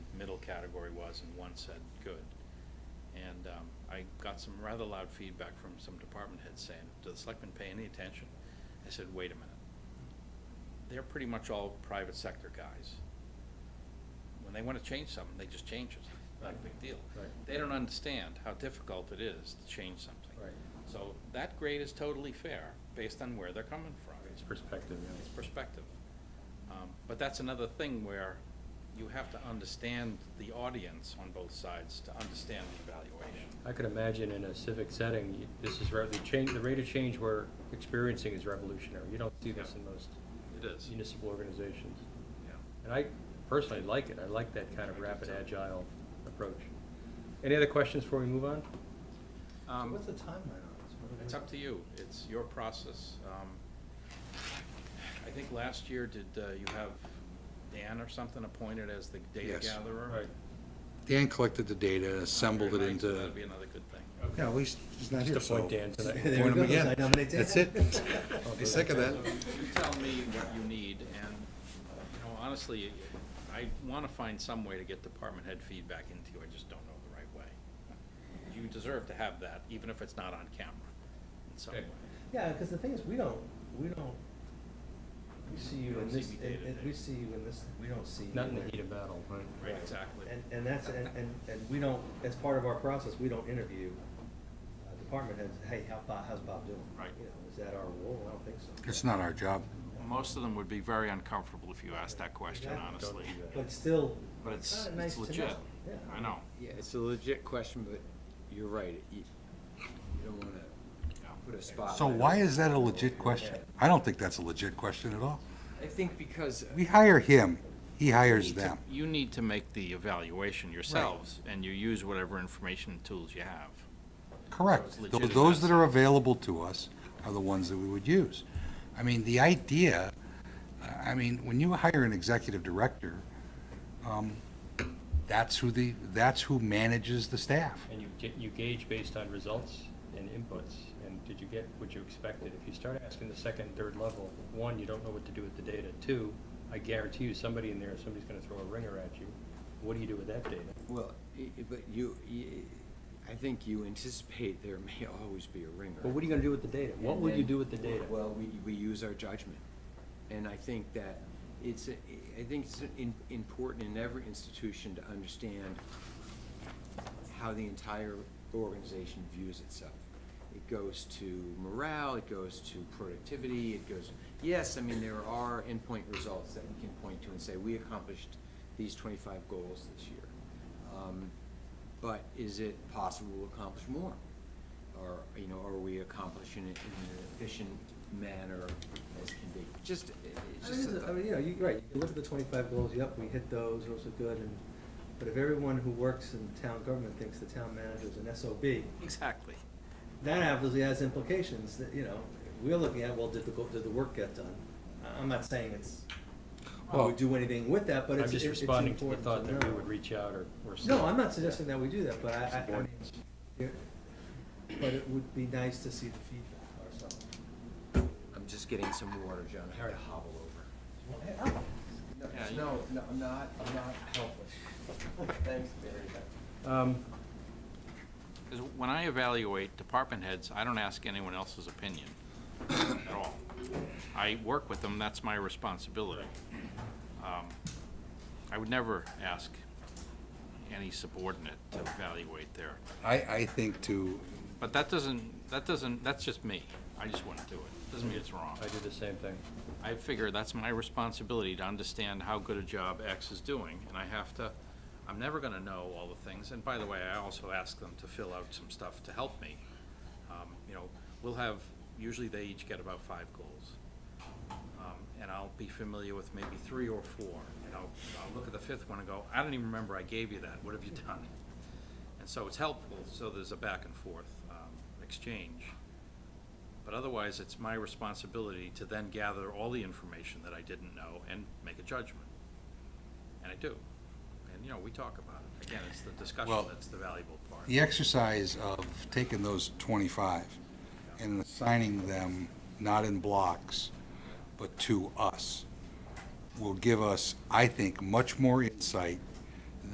category was, and one said good. And um, I got some rather loud feedback from some department heads saying, do the selectmen pay any attention? I said, wait a minute. They're pretty much all private sector guys. When they want to change something, they just change it, not a big deal. Right. They don't understand how difficult it is to change something. Right. So that grade is totally fair, based on where they're coming from. It's perspective, yeah. It's perspective. Um, But that's another thing where you have to understand the audience on both sides to understand the evaluation. I could imagine in a civic setting, you- this is, re- the change, the rate of change we're experiencing is revolutionary. You don't see this in most It is. municipal organizations. Yeah. And I personally like it. I like that kind of rapid, agile approach. Any other questions before we move on? So Um, what's the timeline on this? What are we- It's up to you. It's your process. Um, I think last year, did uh, you have Dan or something appointed as the data Yes. gatherer? Right. Dan collected the data, assembled it Very nice. into. That'd be another good thing. Yeah, at least he's not Just here, so. appoint Dan tonight. Appoint There we him go. again. I nominate Dan. That's it. I'll do He's sick of that. So You tell me what you need, and, you know, honestly, I wanna find some way to get department head feedback into you, I just don't know the right way. You deserve to have that, even if it's not on camera, in some way. Okay. Yeah, because the thing is, we don't, we don't, we see We you don't in this, see me in- day to in- day. we see you in this, we don't see. you Not in the there. heat of battle, right? Right, exactly. And, and that's, and, and, and we don't, as part of our process, we don't interview uh, department heads, hey, how Bob, how's Bob doing? Right. You know, is that our role? I don't think so. It's not our job. Most of them would be very uncomfortable if you asked that question, Exactly. honestly. Don't do that. But it's still. But it's, kinda nice it's to know. legit, Yeah. I know, Yeah, it's a legit question, but you're right. You you don't want to yeah. put a spot. So why is that a legit question? I don't think that's a legit question at all. I think because, We hire him, he hires You need to- them. You need to make the evaluation yourselves, and you use whatever information and tools you have. Correct. So it's Tho- legitimate. Those that are available to us are the ones that we would use. I mean, the idea, I mean, when you hire an executive director, um, that's who the, that's who manages the staff. And you, ga- you gauge based on results and inputs, and did you get what you expected? If you start asking the second, third level, one, you don't know what to do with the data. Two, I guarantee you, somebody in there, somebody's gonna throw a ringer at you. What do you do with that data? well, i- i- but you, you- I think you anticipate there may always be a ringer. But what are you gonna do with the data? What And will you then- do with the data? Well, we, we use our judgment. And I think that it's, a- I think it's in- important in every institution to understand how the entire organization views itself. It goes to morale, it goes to productivity, it goes, yes, I mean, there are endpoint results that we can point to and say, we accomplished these twenty-five goals this year. Um, But is it possible to accomplish more? Or, you know, are we accomplishing it in an efficient manner as can be? Just, it- it's I mean, just. it's a a- I mean, you know, you, right, you look at the twenty-five goals, yep, we hit those, those are good, and, but if everyone who works in town government thinks the town manager is an SOB, Exactly. that obviously has implications, that, you know, we're looking at, well, did the, go- did the work get done? I- I'm not saying it's, Well- we do anything with that, but I'm it's, it- just it's responding to the important thought to that we know. would reach out or, or. No, see. I'm not suggesting that we do that, but I, I, I mean, Subordinates. it- but it would be nice to see the feedback ourselves. I'm just getting some water, John. I have to hobble over. Oh. No, Yeah, you- no, no, I'm not, I'm not helpless. Thanks, Barry. Um, Because when I evaluate department heads, I don't ask anyone else's opinion at all. I work with them, that's my responsibility. Um, I would never ask any subordinate to evaluate their, I, I think to, but that doesn't, that doesn't, that's just me. I just wouldn't do it. Doesn't mean it's wrong. I do the same thing. I figure that's my responsibility to understand how good a job X is doing, and I have to, I'm never gonna know all the things, and by the way, I also ask them to fill out some stuff to help me. Um, You know, we'll have, usually they each get about five goals. Um, And I'll be familiar with maybe three or four, and I'll, I'll look at the fifth one and go, I don't even remember I gave you that, what have you done? And so it's helpful, so there's a back and forth, um, exchange. But otherwise, it's my responsibility to then gather all the information that I didn't know and make a judgment. And I do. And, you know, we talk about it. Again, it's the discussion Well- that's the valuable part. the exercise of taking those 25 and assigning them, not in blocks, but to us, will give us, I think, much more insight